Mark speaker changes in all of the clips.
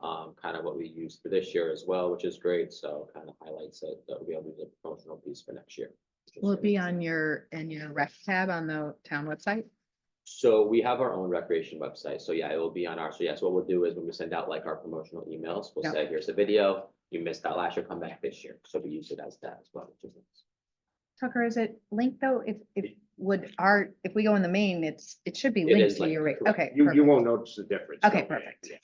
Speaker 1: um, of what we used for this year as well, which is great. So kind of highlights it, that we'll be able to do the promotional piece for next year. which is
Speaker 2: Will it
Speaker 1: great.
Speaker 2: be on your, in your rec tab on the town website?
Speaker 1: So we have our own recreation website. So yeah, it will be on our, so yes, what we'll do is when we send out like our promotional emails, we'll
Speaker 2: Yep.
Speaker 1: say, here's a video. You missed that last year, come back this year. So we use it as that as well. which is nice.
Speaker 2: Tucker, is it linked though? If, if, would our, if we go in the main, it's, it should be
Speaker 1: It
Speaker 2: linked
Speaker 1: is
Speaker 2: to your,
Speaker 1: linked,
Speaker 2: rate.
Speaker 1: correct.
Speaker 2: okay.
Speaker 3: You, you
Speaker 2: perfect.
Speaker 3: won't notice the difference.
Speaker 2: Okay,
Speaker 3: don't worry.
Speaker 2: perfect.
Speaker 3: Yeah.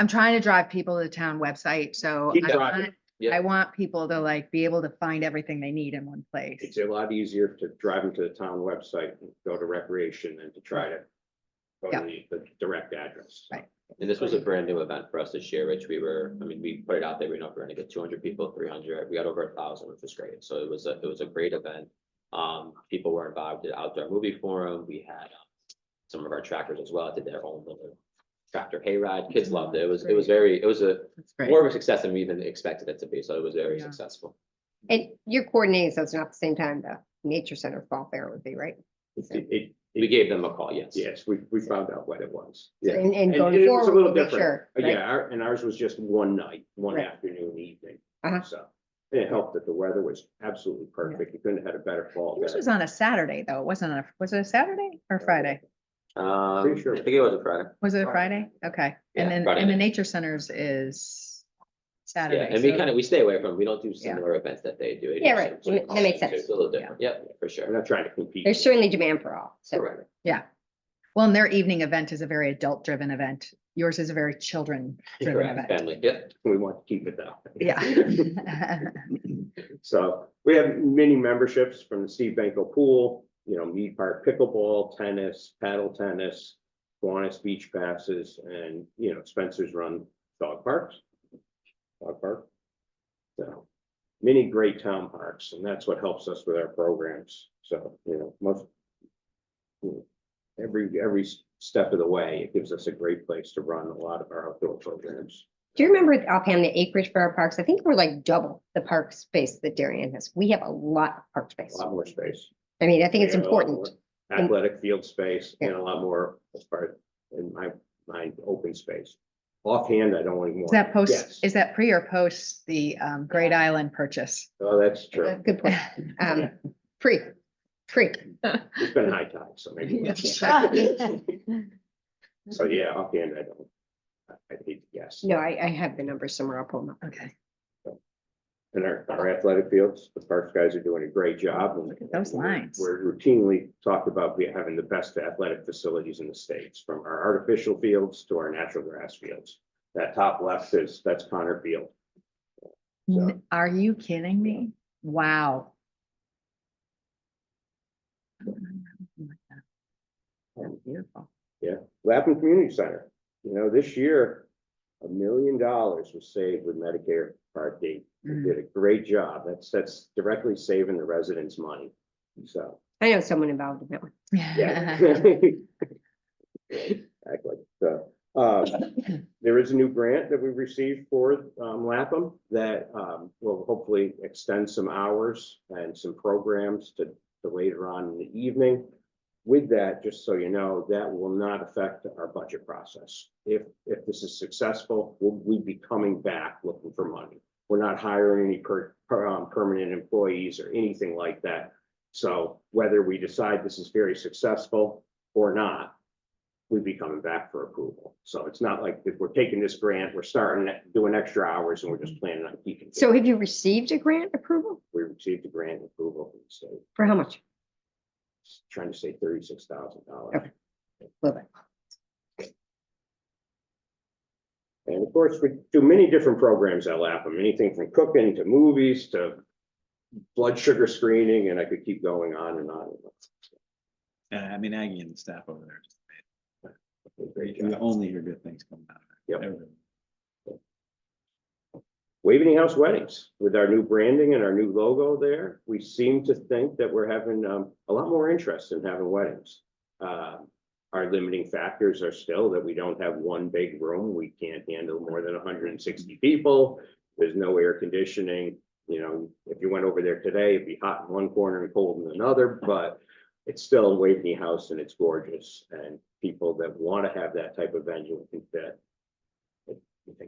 Speaker 2: I'm trying to drive people to the town website, so
Speaker 3: Keep
Speaker 2: I
Speaker 3: driving.
Speaker 2: want,
Speaker 1: Yeah.
Speaker 2: I want people to like be able to find everything they need in one place.
Speaker 3: It's a lot easier to drive them to the town website and go to recreation than to try to go
Speaker 2: Yeah.
Speaker 3: to the- the direct address.
Speaker 2: Right.
Speaker 1: And this was a brand new event for us this year, Rich. We were, I mean, we put it out there. We know if we're gonna get two hundred people, three hundred, we got over a thousand, which was great. So it was a, it was a great event. Um, people were involved at Outdoor Movie Forum. We had um, some of our trackers as well did their own little tractor hayride. Kids loved it. It was, it was very, it was a
Speaker 2: That's great.
Speaker 1: more of a success than we even expected it to be. So it was very
Speaker 2: Yeah.
Speaker 1: successful.
Speaker 4: And you're coordinating, so it's not the same time the nature center fall fair would be, right? So-
Speaker 3: It- it-
Speaker 1: We gave them a call, yes.
Speaker 3: yes, we, we found out what it was. Yeah.
Speaker 4: And, and
Speaker 3: And
Speaker 4: going
Speaker 3: it was a
Speaker 4: forward,
Speaker 3: little
Speaker 4: we'll make
Speaker 3: different.
Speaker 4: sure.
Speaker 3: Uh,
Speaker 4: right?
Speaker 3: Yeah, our- and ours was just one night, one
Speaker 4: Right.
Speaker 3: afternoon, evening.
Speaker 4: Uh-huh.
Speaker 3: So and it helped that the weather was absolutely perfect. You couldn't have had a better fall.
Speaker 2: Yours
Speaker 3: there.
Speaker 2: was on a Saturday though. It wasn't on, a was it a Saturday or Friday?
Speaker 1: Um, I
Speaker 3: Pretty sure.
Speaker 1: think it was a Friday.
Speaker 2: Was it a Friday?
Speaker 3: Friday.
Speaker 2: Okay.
Speaker 1: Yeah,
Speaker 2: And then,
Speaker 1: Friday
Speaker 2: and the
Speaker 1: night.
Speaker 2: nature centers is
Speaker 1: Yeah,
Speaker 2: Saturday.
Speaker 1: and we
Speaker 2: so-
Speaker 1: kind of, we stay away from, we don't do
Speaker 2: Yeah.
Speaker 1: similar events that they do. It
Speaker 4: Yeah,
Speaker 1: is-
Speaker 4: right. That ma- that makes sense.
Speaker 1: It's a little different. Yep, for sure.
Speaker 3: I'm not trying to compete.
Speaker 4: There's certainly demand for all. So
Speaker 1: Correct.
Speaker 2: Well, and their evening event is a very adult driven event. Yours is a very children driven
Speaker 1: Correct.
Speaker 2: event.
Speaker 1: Family, yep.
Speaker 3: We want to keep it that. way.
Speaker 2: Yeah.
Speaker 3: So we have many memberships from the Steve Benko Pool, you know, Mead Park Pickleball, tennis, paddle tennis, Kiwanis Beach Passes, and, you know, Spencer's Run Dog Parks. Dog Park. So many great town parks, and that's what helps us with our programs. So, you know, most you know, every, every step of the way, it gives us a great place to run a lot of our outdoor programs.
Speaker 4: do you remember offhand the acreage for our parks? I think we're like double the park space that Darien has. We have a lot of park
Speaker 3: A
Speaker 4: space.
Speaker 3: lot more space.
Speaker 4: I mean, I think it's
Speaker 3: We have a lot
Speaker 4: important.
Speaker 3: more Athletic field space and a lot more as far in my mind, open space. Offhand, I don't want more.
Speaker 2: Is that post,
Speaker 3: Yes.
Speaker 2: is that pre or post the um Great Island purchase?
Speaker 3: Oh, that's
Speaker 4: Uh,
Speaker 3: true.
Speaker 4: Good point. Um, free, free.
Speaker 3: It's been high tide, so maybe.
Speaker 2: Yes.
Speaker 3: So yeah, offhand, I don't. I- I think yes.
Speaker 4: No, I, I have the number somewhere. I'll pull them up.
Speaker 2: Okay,
Speaker 3: And our, our athletic fields, the parks guys are doing a great job. and
Speaker 2: Look at those
Speaker 3: we're-
Speaker 2: lines.
Speaker 3: We're routinely talked about we having the best athletic facilities in the states, from our artificial fields to our natural grass fields. That top left is, that's Connor Field.
Speaker 2: N-
Speaker 3: So-
Speaker 2: are you kidding me? Wow. That's Beautiful.
Speaker 3: Lapham Community Center, you know, this year, a million dollars was saved with Medicare Part D. They
Speaker 2: Mm.
Speaker 3: did a great job. That's, that's directly saving the residents money. So,
Speaker 4: I know someone involved in that one.
Speaker 3: yeah. Exactly. So, um, there is a new grant that we received for, um, Lapham that, um, will hopefully extend some hours and some programs to, to later on in the evening. With that, just so you know, that will not affect our budget process. If, if this is successful, we'll, we'd be coming back looking for money. We're not hiring any per, per- um, permanent employees or anything like that. So whether we decide this is very successful or not, we'd be coming back for approval. So it's not like if we're taking this grant, we're starting, it, doing extra hours and we're just planning on keeping. it.
Speaker 4: So have you received a grant approval?
Speaker 3: We received the grant approval from the state,
Speaker 4: For how much?
Speaker 3: trying to say thirty-six thousand dollars.
Speaker 4: Okay. Little bit.
Speaker 3: And of course, we do many different programs at Lapham, anything from cooking to movies to blood sugar screening, and I could keep going on and on.
Speaker 5: Uh, I mean, Aggie and the staff over there, just-
Speaker 3: Great
Speaker 5: you
Speaker 3: job.
Speaker 5: only hear good things coming out of it.
Speaker 3: Yep.
Speaker 5: Everything.
Speaker 3: Waveney House Weddings, with our new branding and our new logo there, we seem to think that we're having um, a lot more interest in having weddings. Uh, Our limiting factors are still that we don't have one big room, we can't handle more than hundred and sixty people. There's no air conditioning, you know, if you went over there today, it'd be hot in one corner and cold in another, but it's still Waveney House and it's gorgeous, and people that want to have that type of venue can fit